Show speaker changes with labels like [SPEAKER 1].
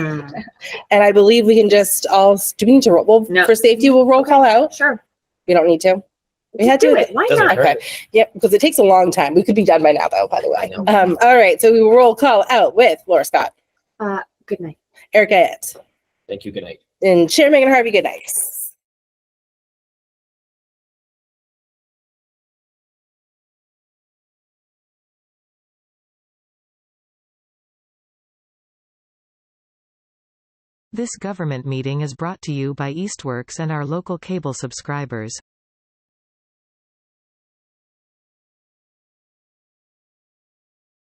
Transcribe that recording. [SPEAKER 1] And I believe we can just all, do we need to roll? Well,
[SPEAKER 2] No.
[SPEAKER 1] for safety, we'll roll call out.
[SPEAKER 2] Sure.
[SPEAKER 1] We don't need to. We had
[SPEAKER 2] Do
[SPEAKER 1] to.
[SPEAKER 2] it. Why
[SPEAKER 3] Doesn't
[SPEAKER 2] not?
[SPEAKER 3] hurt.
[SPEAKER 1] Okay. Yep, because it takes a long time. We could be done by now though, by the
[SPEAKER 3] I
[SPEAKER 1] way.
[SPEAKER 3] know.
[SPEAKER 1] Um, all right, so we will roll call out with Laura Scott,
[SPEAKER 2] Good night.
[SPEAKER 1] Erica Ed,
[SPEAKER 3] Thank you. Good night.
[SPEAKER 1] and Chair Megan Harvey. Good night.
[SPEAKER 4] This government meeting is brought to you by Eastworks and our local cable subscribers.